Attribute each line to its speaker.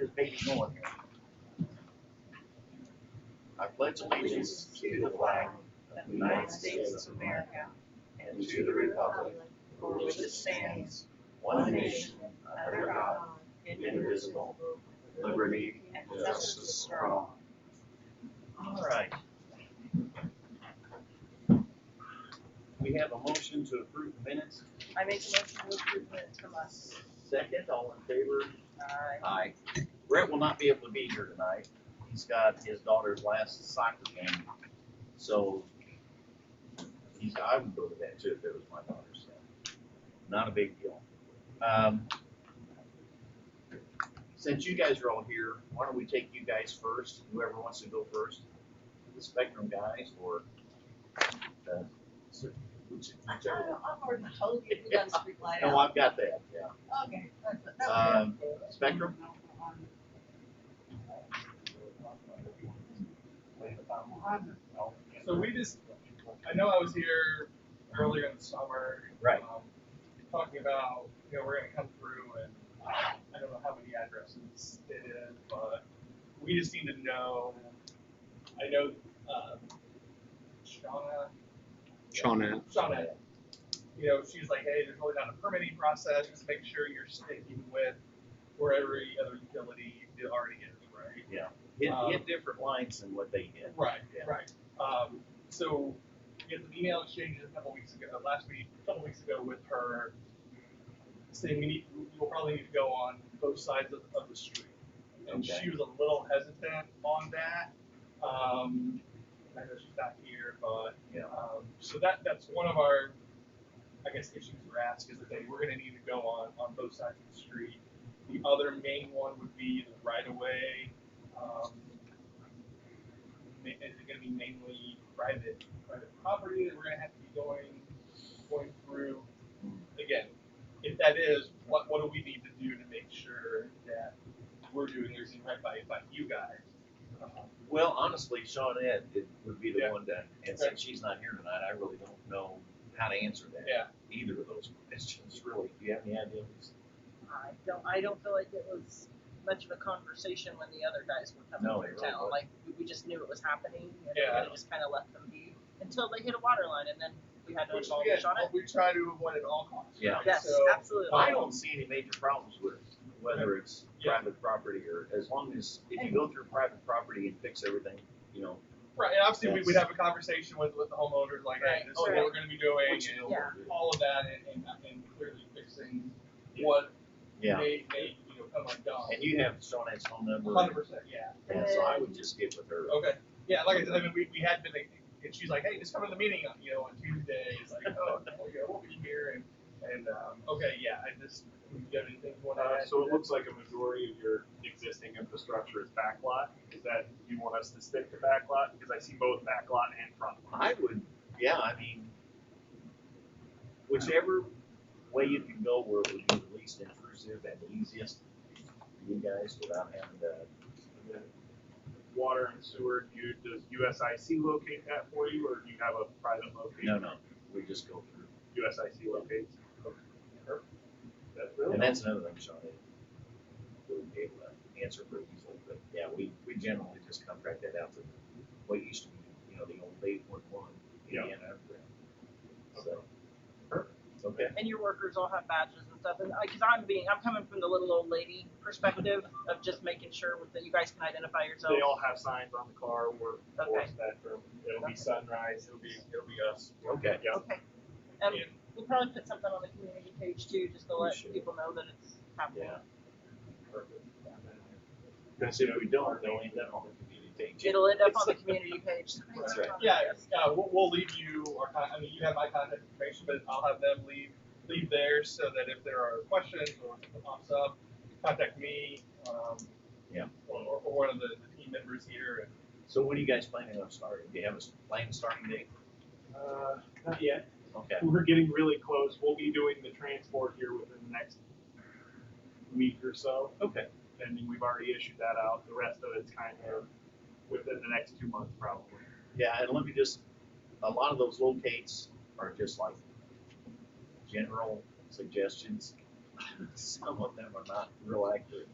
Speaker 1: this baby going. I pledge allegiance to the flag of the United States of America and to the republic for which it stands, one nation,
Speaker 2: uh,
Speaker 1: under God, indivisible, with liberty and justice for all. All right. We have a motion to approve the minutes.
Speaker 2: I make a motion to approve minutes from us.
Speaker 1: Second, all in favor?
Speaker 2: Aye.
Speaker 1: Aye. Brett will not be able to be here tonight. He's got his daughter's last soccer game, so he's, I would go to that too if it was my daughter's. so Not a big deal. Um, Since you guys are all here, why don't we take you guys first, whoever wants to go first? The Spectrum guys or the, whichever.
Speaker 2: I'm already told you we got a street light
Speaker 1: No, I've got that, yeah.
Speaker 2: Okay. that's- that was
Speaker 1: Um, Spectrum?
Speaker 3: So we just, I know I was here earlier in the summer.
Speaker 1: Right.
Speaker 3: um, Talking about, you know, we're gonna come through and I don't know how many addresses it is, but we just need to know. I know, uh, Shauna,
Speaker 4: Shauna,
Speaker 3: Shauna, you know, she's like, hey, there's really not a permitting process, just make sure you're sticking with where every other utility already is, right?
Speaker 1: Yeah, hit,
Speaker 3: Um,
Speaker 1: hit different lines than what they hit.
Speaker 3: Right,
Speaker 1: Yeah.
Speaker 3: right. Um, so we had some email exchanges a couple weeks ago, last week, a couple weeks ago with her saying we need, we'll probably need to go on both sides of, of the street. And
Speaker 1: Okay.
Speaker 3: she was a little hesitant on that. Um, I know she's not here, but,
Speaker 1: Yeah.
Speaker 3: um, so that, that's one of our, I guess, issues we're asked is that they, we're gonna need to go on, on both sides of the street. The other main one would be the right of way. Um, ma- is it gonna be mainly private, private property that we're gonna have to be going, going through? Again, if that is, what, what do we need to do to make sure that we're doing everything right by, by you guys? Um,
Speaker 1: Well, honestly, Sean Ed it would be the
Speaker 3: Yeah.
Speaker 1: one that, and since she's not here tonight, I really don't know how to answer that.
Speaker 3: Yeah,
Speaker 1: Either of those questions, really. Do you have any ideas?
Speaker 2: I don't, I don't feel like it was much of a conversation when the other guys were
Speaker 1: No,
Speaker 2: coming
Speaker 1: it
Speaker 2: through
Speaker 1: really
Speaker 2: town,
Speaker 1: wasn't.
Speaker 2: like, we- we just knew it was happening, and
Speaker 3: Yeah.
Speaker 2: we just kinda left them be, until they hit a water line, and then we had to
Speaker 3: which
Speaker 2: call
Speaker 3: again,
Speaker 2: Shauna.
Speaker 3: we try to avoid at all costs.
Speaker 1: Yeah.
Speaker 3: right?
Speaker 2: Yes,
Speaker 3: So,
Speaker 2: absolutely.
Speaker 1: I don't see any major problems with whether it's
Speaker 3: Yeah.
Speaker 1: private property or as long as, if you go through private property and fix everything, you know,
Speaker 3: Right, and obviously we
Speaker 1: Yes.
Speaker 3: would have a conversation with, with the homeowners, like, hey,
Speaker 2: Right,
Speaker 3: this is what
Speaker 2: right.
Speaker 3: we're gonna be doing,
Speaker 1: Which-
Speaker 3: and
Speaker 2: Yeah.
Speaker 3: all of that, and, and, and clearly fixing
Speaker 1: Yeah.
Speaker 3: what
Speaker 1: yeah.
Speaker 3: may, may, you know, come undone.
Speaker 1: And you have Sean Ed's phone number.
Speaker 3: Hundred percent, yeah.
Speaker 1: And so I would just get with her.
Speaker 3: Okay. Yeah, like I said, I mean, we, we had been, like, and she's like, hey, just come to the meeting on, you know, on Tuesday. It's like, oh, well, yeah, we'll be here. And, and um, okay, yeah, I just, do you have anything you want to
Speaker 5: Uh,
Speaker 3: add?
Speaker 5: so it looks like a majority of your existing infrastructure is backlot. Is that, you want us to stick to backlot? Because I see both backlot and front lot.
Speaker 1: I would, yeah, I mean, whichever way you can go where it would be the least intrusive and the easiest for you guys without having to,
Speaker 5: And then Water and sewer, do you, does USIC locate that for you or do you have a private
Speaker 1: no,
Speaker 5: location?
Speaker 1: no, we just go through.
Speaker 5: USIC locates? That's really,
Speaker 1: And that's another thing, Sean, that wouldn't be able to answer pretty easily, but yeah, we, we generally just contract that out to what used to be, you know, the old eight one one Indiana. So, perfect, okay.
Speaker 2: and your workers all have badges and stuff. And because I'm being, I'm coming from the little old lady perspective of just making sure that you guys can identify yourselves.
Speaker 5: they all have signs on the car, we're
Speaker 2: Okay.
Speaker 5: forced that term. It'll be sunrise, it'll be, it'll be us.
Speaker 1: Okay.
Speaker 5: Yeah.
Speaker 2: Okay. Um,
Speaker 3: Yeah.
Speaker 2: we'll probably put something on the community page too, just to
Speaker 1: We
Speaker 2: let
Speaker 1: should.
Speaker 2: people know that it's happening.
Speaker 1: Yeah. Because if we don't, they'll end up on the community page.
Speaker 2: It'll end up on the
Speaker 1: It's-
Speaker 2: community page.
Speaker 1: That's right.
Speaker 3: Yeah, yeah we'll, we'll leave you, our, con- I mean, you have my contact information, but I'll have them leave, leave theirs so that if there are questions or something pops up, contact me. Um,
Speaker 1: Yeah.
Speaker 3: Or, or, or one of the, the team members here. And,
Speaker 1: So when are you guys planning on starting? Do you have a s- planned starting date?
Speaker 5: Uh, not yet.
Speaker 1: Okay,
Speaker 5: We're getting really close. We'll be doing the transport here within the next week or so.
Speaker 1: okay,
Speaker 5: And then we've already issued that out. The rest of it's kind of within the next two months probably.
Speaker 1: yeah, and let me just, a lot of those locates are just like general suggestions. Some of them are not real accurate.